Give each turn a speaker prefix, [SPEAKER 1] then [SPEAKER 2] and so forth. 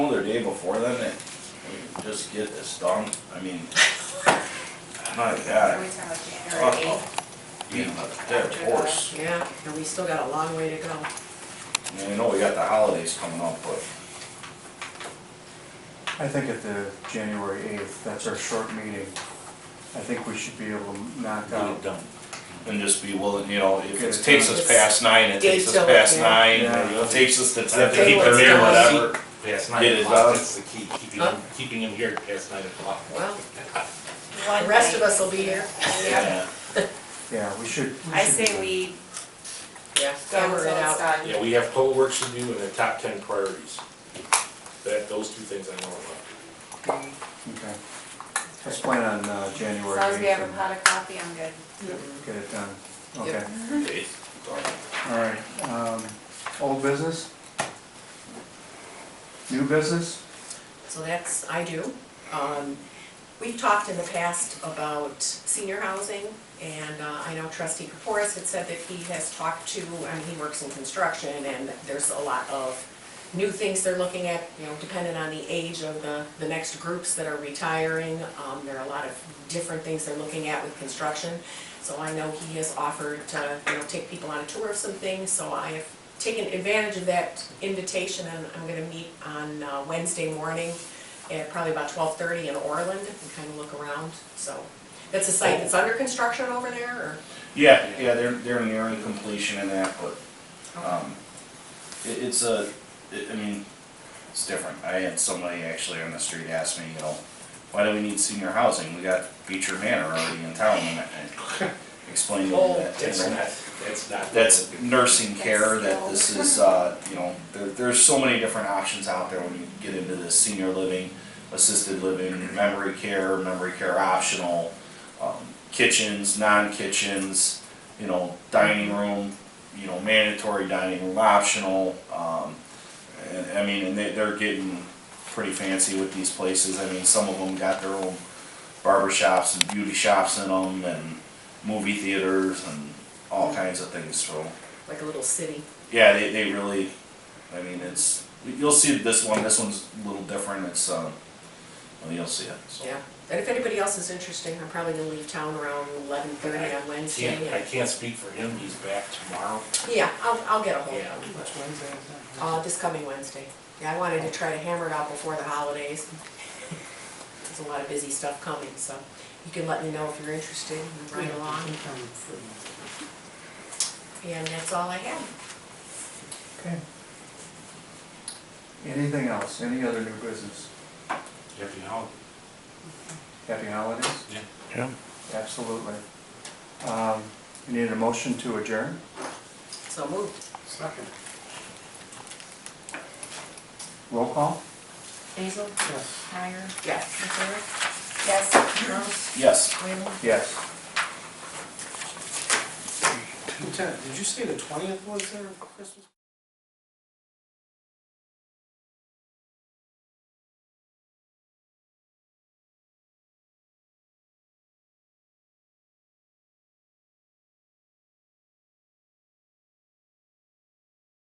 [SPEAKER 1] know the day before then that we just get this done, I mean, my God.
[SPEAKER 2] We're talking about January
[SPEAKER 1] uh-oh.
[SPEAKER 2] eighth.
[SPEAKER 1] Being a dead horse,
[SPEAKER 3] Yeah, and we still got a long way to go.
[SPEAKER 1] I mean, I know we got the holidays coming up, but
[SPEAKER 4] I think at the January eighth, that's our short meeting. I think we should be able to knock
[SPEAKER 1] Get it
[SPEAKER 4] out.
[SPEAKER 1] done. And just be willing, you know, if
[SPEAKER 4] Get
[SPEAKER 1] it
[SPEAKER 4] it
[SPEAKER 1] takes
[SPEAKER 3] done.
[SPEAKER 1] us past nine, it takes us
[SPEAKER 3] Daytime,
[SPEAKER 1] past
[SPEAKER 3] yeah.
[SPEAKER 1] nine,
[SPEAKER 4] Yeah.
[SPEAKER 1] it takes us to
[SPEAKER 5] I
[SPEAKER 1] ten,
[SPEAKER 5] have to
[SPEAKER 3] They
[SPEAKER 5] keep
[SPEAKER 3] were
[SPEAKER 5] it there,
[SPEAKER 3] done.
[SPEAKER 5] whatever.
[SPEAKER 1] Get
[SPEAKER 5] Past nine
[SPEAKER 1] it
[SPEAKER 5] o'clock,
[SPEAKER 1] done.
[SPEAKER 5] that's the key, keeping,
[SPEAKER 3] Huh?
[SPEAKER 5] him- keeping him here past nine o'clock.
[SPEAKER 3] Well,
[SPEAKER 2] One
[SPEAKER 3] the rest of
[SPEAKER 2] night.
[SPEAKER 3] us will be here.
[SPEAKER 1] Yeah.
[SPEAKER 4] Yeah, we should. we
[SPEAKER 2] I
[SPEAKER 4] should
[SPEAKER 2] say
[SPEAKER 4] do that.
[SPEAKER 2] we
[SPEAKER 3] Yeah,
[SPEAKER 2] go
[SPEAKER 3] hammer it out.
[SPEAKER 5] Yeah, we have total work to do and the top ten priorities. That, those two things I know about.
[SPEAKER 4] Okay. Let's plan on, uh,
[SPEAKER 2] As
[SPEAKER 4] January
[SPEAKER 2] long as we
[SPEAKER 4] eighth
[SPEAKER 2] have a
[SPEAKER 4] and
[SPEAKER 2] pot of coffee, I'm good.
[SPEAKER 3] Mm-hmm.
[SPEAKER 4] get it done.
[SPEAKER 3] Yep.
[SPEAKER 4] Okay,
[SPEAKER 1] Okay.
[SPEAKER 4] all right. Um, old business? New business?
[SPEAKER 3] So that's, I do. Um, We've talked in the past about senior housing, and uh, I know trustee Kaporis had said that he has talked to, I mean, he works in construction, and there's a lot of new things they're looking at, you know, depending on the age of the, the next groups that are retiring. Um, There are a lot of different things they're looking at with construction. So I know he has offered to, you know, take people on a tour of some things, so I have taken advantage of that invitation, and I'm gonna meet on uh, Wednesday morning at probably about twelve thirty in Orland and kind of look around, so. That's a site that's under construction over there, or?
[SPEAKER 1] Yeah, yeah, they're, they're nearing completion in that, but, um, it, it's a, it- I mean, it's different. I had somebody actually on the street ask me, you know, why do we need senior housing? We got Beecher Manor already in town, and I I explained to
[SPEAKER 3] Oh,
[SPEAKER 1] them that. you
[SPEAKER 5] That's
[SPEAKER 1] know,
[SPEAKER 5] not, that's not.
[SPEAKER 1] that's nursing care, that
[SPEAKER 2] That's
[SPEAKER 1] this is, uh, you know, there, there's so many different options out there when you get into this senior living, assisted living, memory care, memory care optional, um, kitchens, non-kitchens, you know, dining room, you know, mandatory dining room optional, um, and, I mean, and they, they're getting pretty fancy with these places, I mean, some of them got their own barber shops and beauty shops in them, and movie theaters, and all kinds of things, so.
[SPEAKER 3] Like a little city.
[SPEAKER 1] Yeah, they, they really, I mean, it's, you'll see this one, this one's a little different, it's, um, well, you'll see it, so.
[SPEAKER 3] Yeah, and if anybody else is interested, I'm probably gonna leave town around eleven thirty on Wednesday.
[SPEAKER 5] Can't, I
[SPEAKER 3] and-
[SPEAKER 5] can't speak for him, he's back tomorrow.
[SPEAKER 3] Yeah, I'll, I'll get a hold
[SPEAKER 5] Yeah.
[SPEAKER 3] of them. Uh, this coming Wednesday. Yeah, I wanted to try to hammer it out before the holidays. There's a lot of busy stuff coming, so you can let me know if you're interested and ride along. And that's all I have.
[SPEAKER 4] Okay. Anything else? Any other new business?
[SPEAKER 5] Happy holidays.
[SPEAKER 4] Happy holidays?
[SPEAKER 5] Yeah.
[SPEAKER 6] Yeah.
[SPEAKER 4] Absolutely. Um, you need a motion to adjourn?
[SPEAKER 3] So moved.
[SPEAKER 7] Second.
[SPEAKER 4] Roll call?
[SPEAKER 2] Basil?
[SPEAKER 7] Yes.
[SPEAKER 2] Meyer?
[SPEAKER 3] Yes.
[SPEAKER 2] McClure? Yes. Rose?
[SPEAKER 1] Yes.
[SPEAKER 2] Whalen?
[SPEAKER 4] Yes.
[SPEAKER 7] Lieutenant, did you say the twentieth was there, Christmas?